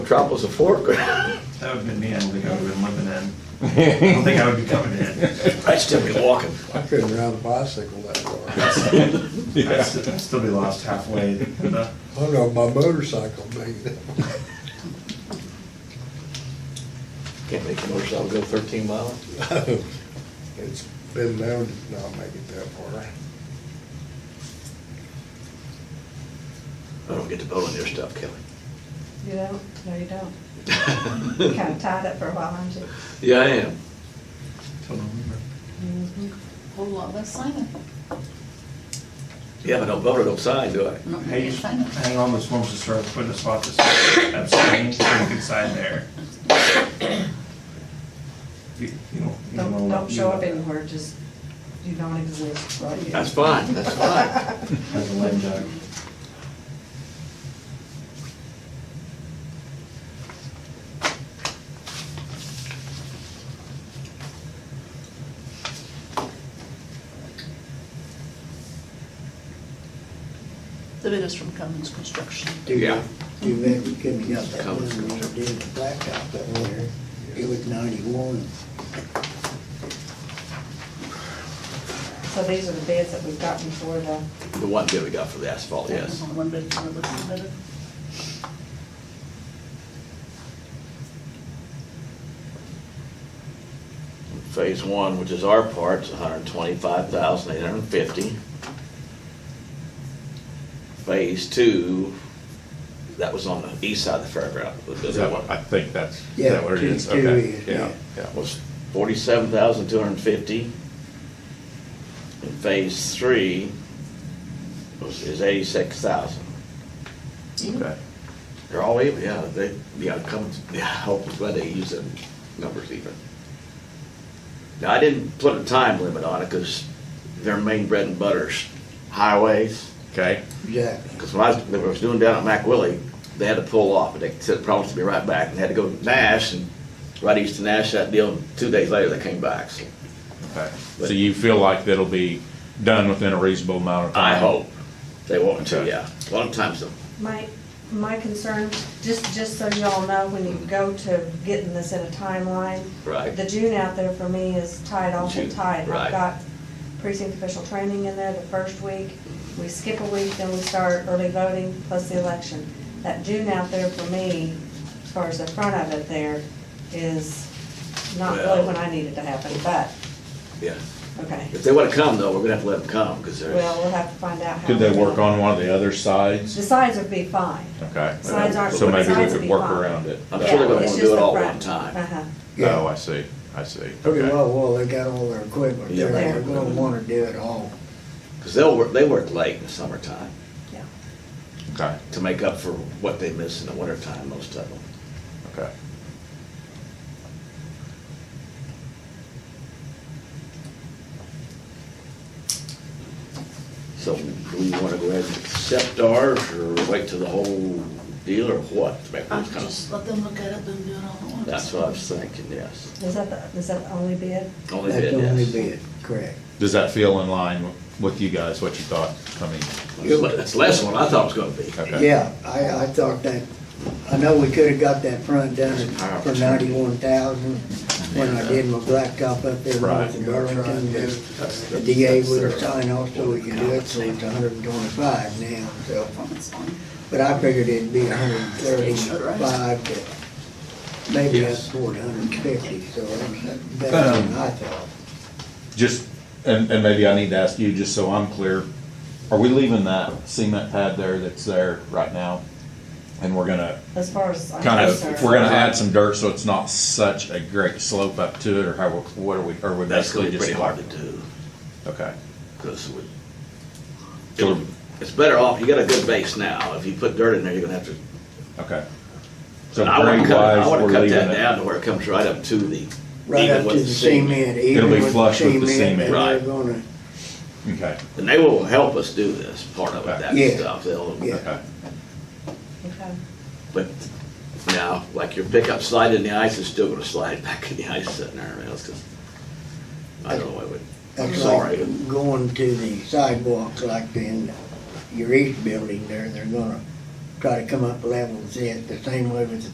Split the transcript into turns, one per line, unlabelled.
Metropolis of Fork.
That would have been me, I don't think I would have been living in. I don't think I would be coming in.
I'd still be walking.
I couldn't ride a bicycle that far.
I'd st- I'd still be lost halfway. in the-
I don't know, if my motorcycle made it.
Can't make a motorcycle go 13 miles.
It's been known to not make it that far.
I don't get to vote on your stuff, Kelly.
You don't? No, you don't. You kind of tied up for a while, aren't you?
Yeah, I am.
till November.
Whole lot less signing.
Yeah, but I don't vote, I don't sign, do I?
Not
Hey,
really
you should
signing.
hang on those forms to start putting a spot this abstain, so you can sign there. You you don't. you
Don't,
know-
don't
you
show up
know-
anywhere, just, you don't exist, right? here.
That's fine, that's fine.
That's a lame duck.
The bid is from Cummins Construction.
Too
Yeah.
bad, too bad we couldn't have got that one
Colours.
when we did the blacktop up there. It was ninety-one.
So these are the bids that we've gotten for the,
The one bid we got for the asphalt,
That
yes.
was only One bid, one bid, one bid.
Phase one, which is our part, is hundred and twenty-five thousand, eight hundred and fifty. Phase two, that was on the east side of the fairground.
Is that what, I think that's, is
Yeah,
that what it
two-
is?
two
Okay,
is, yeah.
yeah, yeah.
was forty-seven thousand two hundred and fifty. And phase three was, is eighty-six thousand.
Okay.
They're all even, yeah, they, yeah, come, yeah, I hope I'm glad they use them numbers even. Now, I didn't put a time limit on it, cause their main bread and butter's highways.
Okay,
Exactly.
Because when I was, when I was doing down at McWillie, they had to pull off, and they said, promised to be right back, and they had to go to Nash, and right east of Nash, that deal, and two days later, they came back, so.
okay. So you feel like that'll be done within a reasonable amount of time?
I hope they want to,
Okay.
yeah. A lot of times, though,
my, my concern, just, just so y'all know, when you go to getting this in a timeline.
Right.
The June out there for me is tied awful
June,
tight.
right.
I've got precinct official training in there the first week. We skip a week, then we start early voting plus the election. That June out there for me, as far as the front of it there, is not really
Well-
when I need it to happen, but,
yeah.
okay.
If they want to come, though, we're gonna have to let them come, because
Well,
they're,
we'll have to find out how.
Could they
we're
work
gonna-
on one of the other
The
sides?
sides would be fine.
Okay.
Sides aren't-
So maybe we
sides would
could
be
work
fine.
around it.
I'm sure they're gonna
Yeah,
wanna
it's
do
just
it
the
all at
front.
one time.
Uh-huh.
Yeah.
Oh, I see, I see,
Pretty
okay.
well, well, they got all their equipment
Yeah.
there. They're gonna wanna do it all.
because they'll, work they work late in the summertime
Yeah.
Okay,
to make up for what they miss in the wintertime, most of them.
okay.
So do we want to go ahead and accept ours, or wait till the whole deal, or what? To make
I
those kind of-
just let them look at it, then do it all at once.
That's what I was thinking, yes.
Is that the, is that the only bid?
Only
That's
bid,
the only
yes.
bid, correct.
Does that feel in line with you guys, what you thought coming?
That's less than what I thought it was gonna be.
Okay.
Yeah, I, I thought that, I know we could've got that front done
Power.
for ninety-one thousand when I did my blacktop up there north
Right.
of Burlington. but
That's-
The DA would've
that's their-
signed off so we could do it, so it's hundred and twenty-five now, so.
That's fine.
But I figured it'd be hundred and thirty-five to maybe up
Yes.
toward hundred and fifty, so that's better than I thought.
Just, and, and maybe I need to ask you, just so I'm clear, are we leaving that cement pad there that's there right now? And we're gonna
As far as I'm
kind of,
concerned.
we're gonna add some dirt so it's not such a great slope up to it, or how, what are we, or we
That's gonna
basically
be
just.
pretty hard to do.
Okay,
Because we,
Sure.
it's better off, you got a good base now, if you put dirt in there, you're gonna have to.
okay. So
And I wanna
grade
cut, I
wise,
wanna
we're
cut
leaving
that down
it.
to where it comes right up to the,
Right
even
up to
with
the cement,
Um, It'll
even
be
with the
flush with the
cement,
cement.
and they're
Right.
gonna,
Okay,
And they will help us do this, part of it, that
Yeah.
stuff, they'll,
Yeah.
okay,
Okay.
but now, like your pickup slide in the ice, it's still gonna slide back in the ice sitting there, man, it's just, I don't know, I would, I'm
that's
sorry.
like going to the sidewalk, like in your east building there, they're gonna try to come up level with it, the same way with the